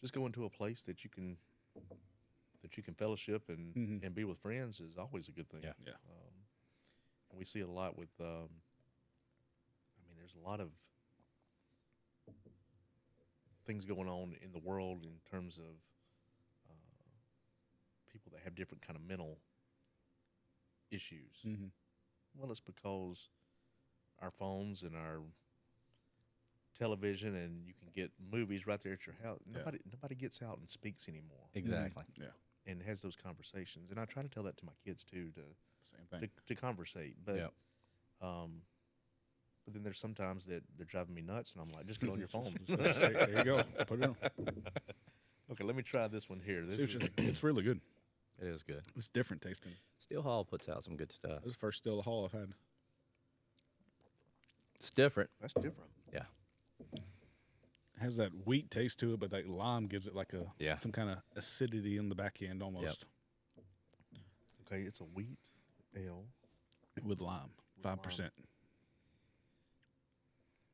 just going to a place that you can that you can fellowship and and be with friends is always a good thing. Um, Yeah. Yeah. And we see it a lot with. Um, I mean, there's a lot of things going on in the world in terms of uh, people that have different kind of mental issues. Mm-hmm. Well, it's because our phones and our television, and you can get movies right there at your house. Nobody, nobody gets out and speaks anymore Exactly. Mm-hmm. Yeah. and has those conversations. And I try to tell that to my kids too to Same to, thing. to conversate. But um, Yep. but then there's sometimes that they're driving me nuts, and I'm like, just get on your phone. there you go. Put it on. okay, let me try this one here. This See what is, you think. It's really good. Mm-hmm. It is good. It's different tasting. Steel Hall puts out some good stuff. This is the first still hall I've had. It's different. that's different. Yeah. It has that wheat taste to it, but that lime gives it like a Yeah. some kind of acidity in the back end almost Okay, it's a wheat ale. with lime. Five percent.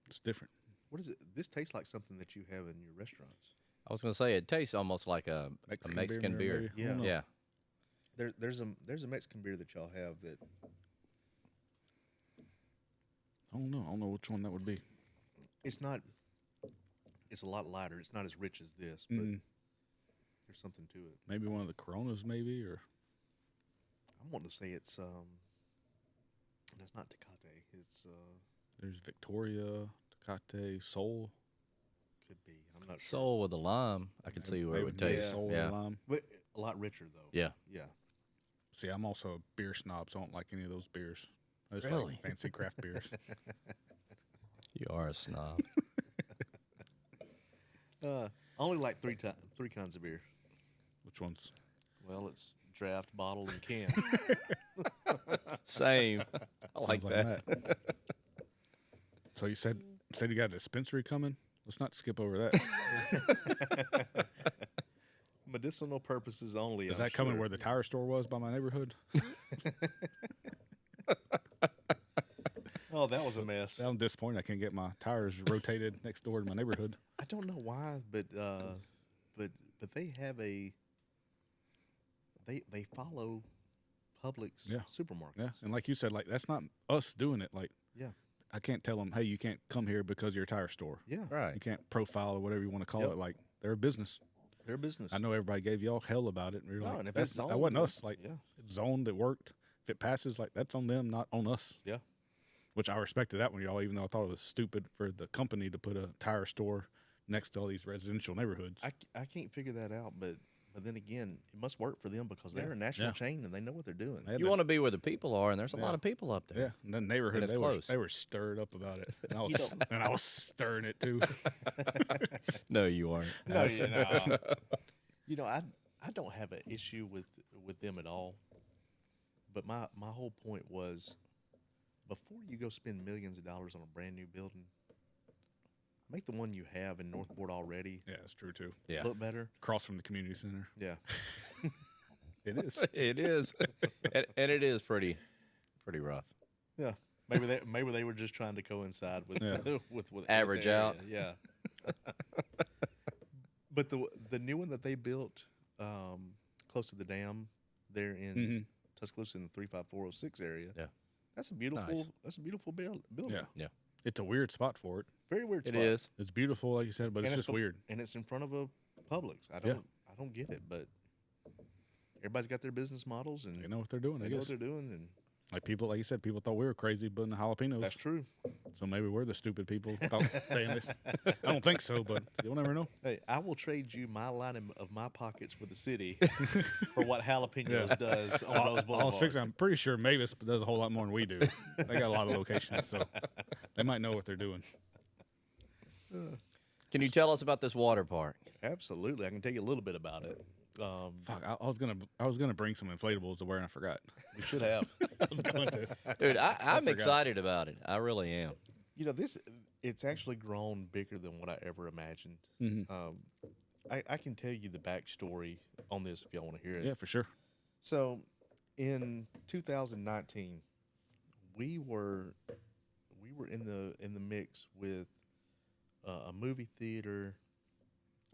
It's different. What is it? This tastes like something that you have in your restaurants. I was gonna say it tastes almost like a Mexican Mexican, beer, a Mexican maybe. beer. I don't Yeah. know. Yeah. There, there's a there's a Mexican beer that y'all have that I don't know. I don't know which one that would be. it's not. It's a lot lighter. It's not as rich as this, but Mm-hmm. there's something to it. Maybe one of the Coronas, maybe or I'm wanting to say it's um. That's not Tecate. It's uh. there's Victoria, Tecate, Soul. Could be. I'm not sure. Soul with a lime. I can see where it Maybe would maybe taste. Soul and yeah. lime. But a lot richer though. Yeah. Yeah. See, I'm also a beer snob, so I don't like any of those beers. I just Really? like fancy craft beers. You are a snob. Uh, I only like three ti- three kinds of beer. Which ones? Well, it's draft, bottle, and can. Same. I like Sounds that. that. so you said said you got a dispensary coming? Let's not skip over that. Medicinal purposes only. Is I'm that coming sure. where the tire store was by my neighborhood? Oh, that was a mess. I'm disappointed. I can't get my tires rotated next door to my neighborhood. I don't know why, but uh, but but they have a they they follow Publix Yeah. supermarkets. Yeah, and like you said, like that's not us doing it. Like Yeah. I can't tell them, hey, you can't come here because of your tire store. Yeah. Right. You can't profile or whatever you want to call Yep. it. Like they're a business. Their business. I know everybody gave y'all hell about it, and we were No, like, and if that's, it's that zoned, wasn't then- us. Like, yeah. it's zoned, it worked. If it passes, like that's on them, not on us. Yeah. Which I respected that one, y'all. Even though I thought it was stupid for the company to put a tire store next to all these residential neighborhoods. I, c- I can't figure that out, but but then again, it must work for them because they're a national Yeah. chain and they know what they're doing. They had You that- want to be where the people are, and there's a lot of people up there. yeah, and the neighborhood And it's they close. were they were stirred up about it, and I was and I was stirring it too. No, you aren't. No, you know, you know, I I don't have an issue with with them at all. But my my whole point was, before you go spend millions of dollars on a brand new building, make the one you have in Northport already yeah, it's true too. Yeah. look better. across from the community center, Yeah, it is. It is, and, and it is pretty, pretty rough. yeah. Maybe they maybe they were just trying to coincide with Yeah. with, with, with Average the area. out. Yeah. but the the new one that they built um, close to the dam there in Mm-hmm. Tuscaloosa in the three five four zero six area. Yeah, That's a beautiful. Nice. That's a beautiful build, building. Yeah. yeah. It's a weird spot for it. Very weird. It spot. is. It's beautiful, like you said, but And it's just a- weird. And it's in front of a Publix. I don't. I don't get it, but everybody's got their business models and They know what they're doing. they I know guess. what they're doing, and Like people, like you said, people thought we were crazy putting the jalapenos. that's true. So maybe we're the stupid people thought saying this. I don't think so, but you'll never know. Hey, I will trade you my line of- of my pockets for the city for what jalapenos Yeah. does on I, Rose I was Boulevard. fixing. I'm pretty sure Mavis does a whole lot more than we do. They got a lot of locations, so they might know what they're doing. Can you tell us about this water park? Absolutely, I can tell you a little bit about it. Um, Fuck, I, I was gonna, I was gonna bring some inflatables to wear, and I forgot. we should have. I was going to. Dude, I, I'm forgot. excited about it. I really am. You know, this it's actually grown bigger than what I ever imagined. Mm-hmm. Um, I, I can tell you the backstory on this if y'all want to hear it. Yeah, for sure. So, in 2019, we were we were in the in the mix with uh, a movie theater,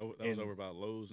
Oh, that was And- over by Lowe's